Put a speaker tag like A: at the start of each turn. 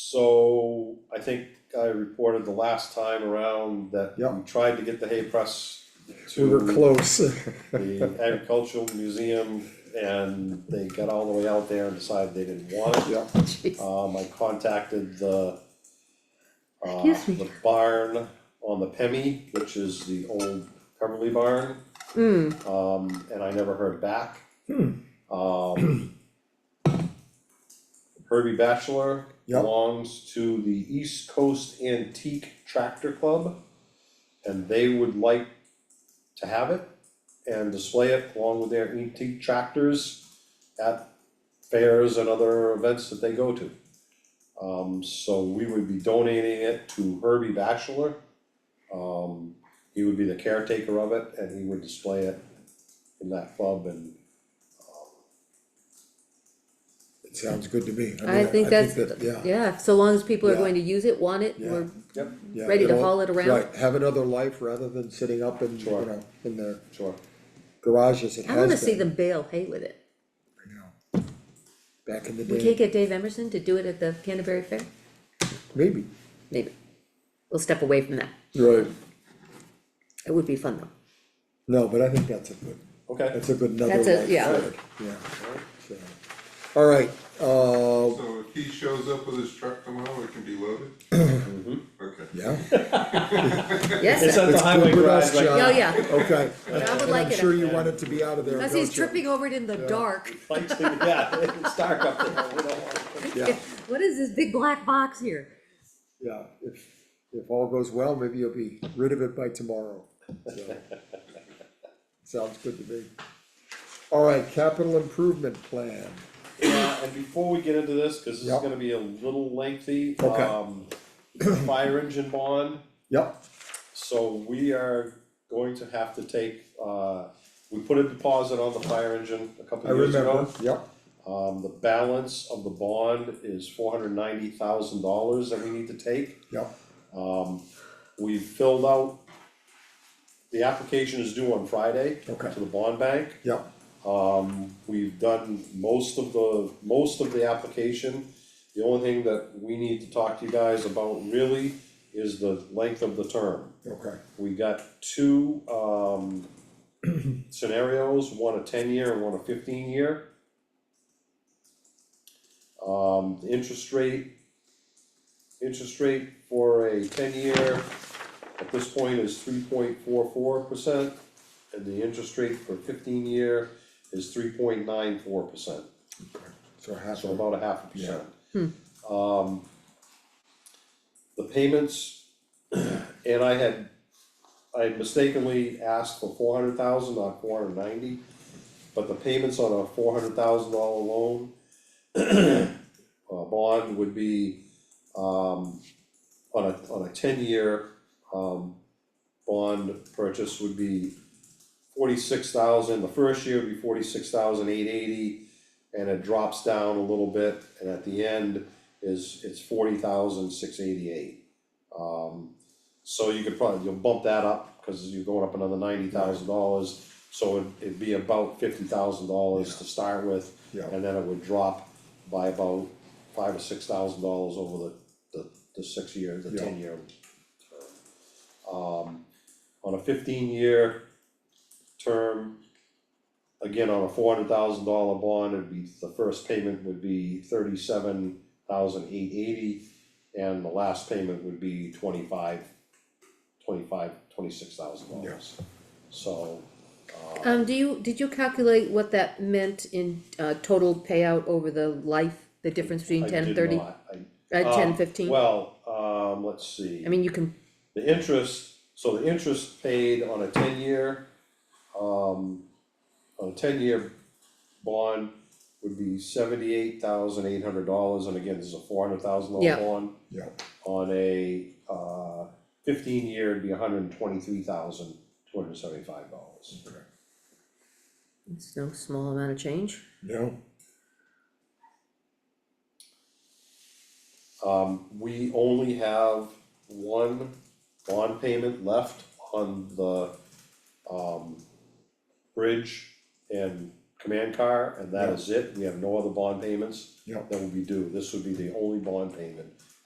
A: So I think I reported the last time around that we
B: Yeah.
A: tried to get the hay press
B: We were
A: to
B: close.
A: the agricultural museum and they got all the way out there and decided they didn't want it.
B: Yeah,
A: Um, I contacted the uh,
C: Excuse me.
A: the barn on the Pemmy, which is the old Cumberly barn.
B: Oh.
C: Mm,
A: Um, and I never heard back.
B: Hmm.
A: Um. Herbie Bachelor
B: Yep.
A: belongs to the East Coast Antique Tractor Club. And they would like to have it and display it along with their antique tractors at fairs and other events that they go to. Um, so we would be donating it to Herbie Bachelor. Um, he would be the caretaker of it and he would display it in that club and
B: it sounds good to me.
C: I
B: mean,
C: think that's,
B: that- Yeah,
C: yeah, so long as people are
B: Yeah.
C: going to use it, want it,
B: Yeah.
C: we're
A: Yep.
B: yeah.
C: ready to
B: it'll-
C: haul it around.
B: Right, have another life rather than sitting up in, you
A: Sure.
B: know, in the
A: Sure.
B: garages it has
C: I
B: been.
C: wanna see them bale hay with it.
B: you know, Back in the
C: We can't
B: day,
C: get Dave Emerson to do it at the Canterbury Fair,
B: maybe.
C: maybe. We'll step away from that.
B: Right.
C: It would be fun though.
B: No, but I think that's a good,
A: Okay.
B: that's a good another
C: That's a-
B: life
C: yeah.
B: for it, yeah, so. All right, uh,
D: So if he shows up with his truck tomorrow, it can be loaded? Okay.
B: yeah,
C: Yes, sir.
B: the highway garage, like-
C: oh yeah,
B: okay.
C: I would
B: And
C: like
B: I'm
C: it
B: sure
C: up
B: you want it to be out of there,
C: cause he's
B: don't you?
C: tripping over it in the dark.
A: Lights, yeah, it's dark up there, we don't want it.
B: Yeah.
C: What is this big black box here?
B: Yeah, if, if all goes well, maybe you'll be rid of it by tomorrow, so. Sounds good to me. All right, capital improvement plan,
A: Yeah, and before we get into this, cause this is
B: Yep.
A: gonna be a little lengthy,
B: Okay.
A: um, fire engine bond.
B: yep,
A: So we are going to have to take, uh, we put a deposit on the fire engine a couple
B: I
A: of years ago.
B: remember, yep,
A: Um, the balance of the bond is four hundred ninety thousand dollars that we need to take.
B: yep,
A: Um, we filled out, the application is due on Friday
B: Okay.
A: to the bond bank.
B: yep,
A: Um, we've done most of the, most of the application. The only thing that we need to talk to you guys about really is the length of the term.
B: okay,
A: We got two, um, scenarios, one a ten-year and one a fifteen-year. Um, the interest rate, interest rate for a ten-year at this point is three point four four percent. And the interest rate for fifteen-year is three point nine four percent,
B: so half
A: so
B: of,
A: about a half a percent. Um, the payments, and I had, I had mistakenly asked for four hundred thousand, not four hundred ninety. But the payments on a four hundred thousand dollar loan, uh, bond would be, um, on a, on a ten-year, um, bond purchase would be forty-six thousand, the first year would be forty-six thousand eight eighty, and it drops down a little bit, and at the end is, it's forty thousand six eighty-eight. Um, so you could probably, you'll bump that up, cause you're going up another ninety thousand dollars, so it'd, it'd be about fifty thousand dollars to start with,
B: Yeah.
A: and then it would drop by about five or six thousand dollars over the, the, the six year, the
B: Yeah.
A: ten year. Um, on a fifteen year term, again, on a four hundred thousand dollar bond, it'd be, the first payment would be thirty-seven thousand eight eighty, and the last payment would be twenty-five, twenty-five, twenty-six thousand dollars. So, uh,
C: Um, do you, did you calculate what that meant in, uh, total payout over the life, the difference
A: I
C: between ten
A: did
C: thirty,
A: not, I-
C: uh,
A: um,
B: Oh,
C: ten fifteen?
A: Well, um, let's see.
C: I mean, you can,
A: The interest, so the interest paid on a ten-year, um, on a ten-year bond would be seventy-eight thousand eight hundred dollars, and again, this is a four hundred thousand dollar
C: Yeah.
A: bond.
B: yeah,
A: On a, uh, fifteen-year, it'd be hundred and twenty-three thousand two hundred and seventy-five dollars.
C: it's no small amount of change.
B: no,
A: Um, we only have one bond payment left on the, um, bridge and command car, and that is it, we have no other bond payments
B: yeah,
A: that will be due, this would be the only bond payment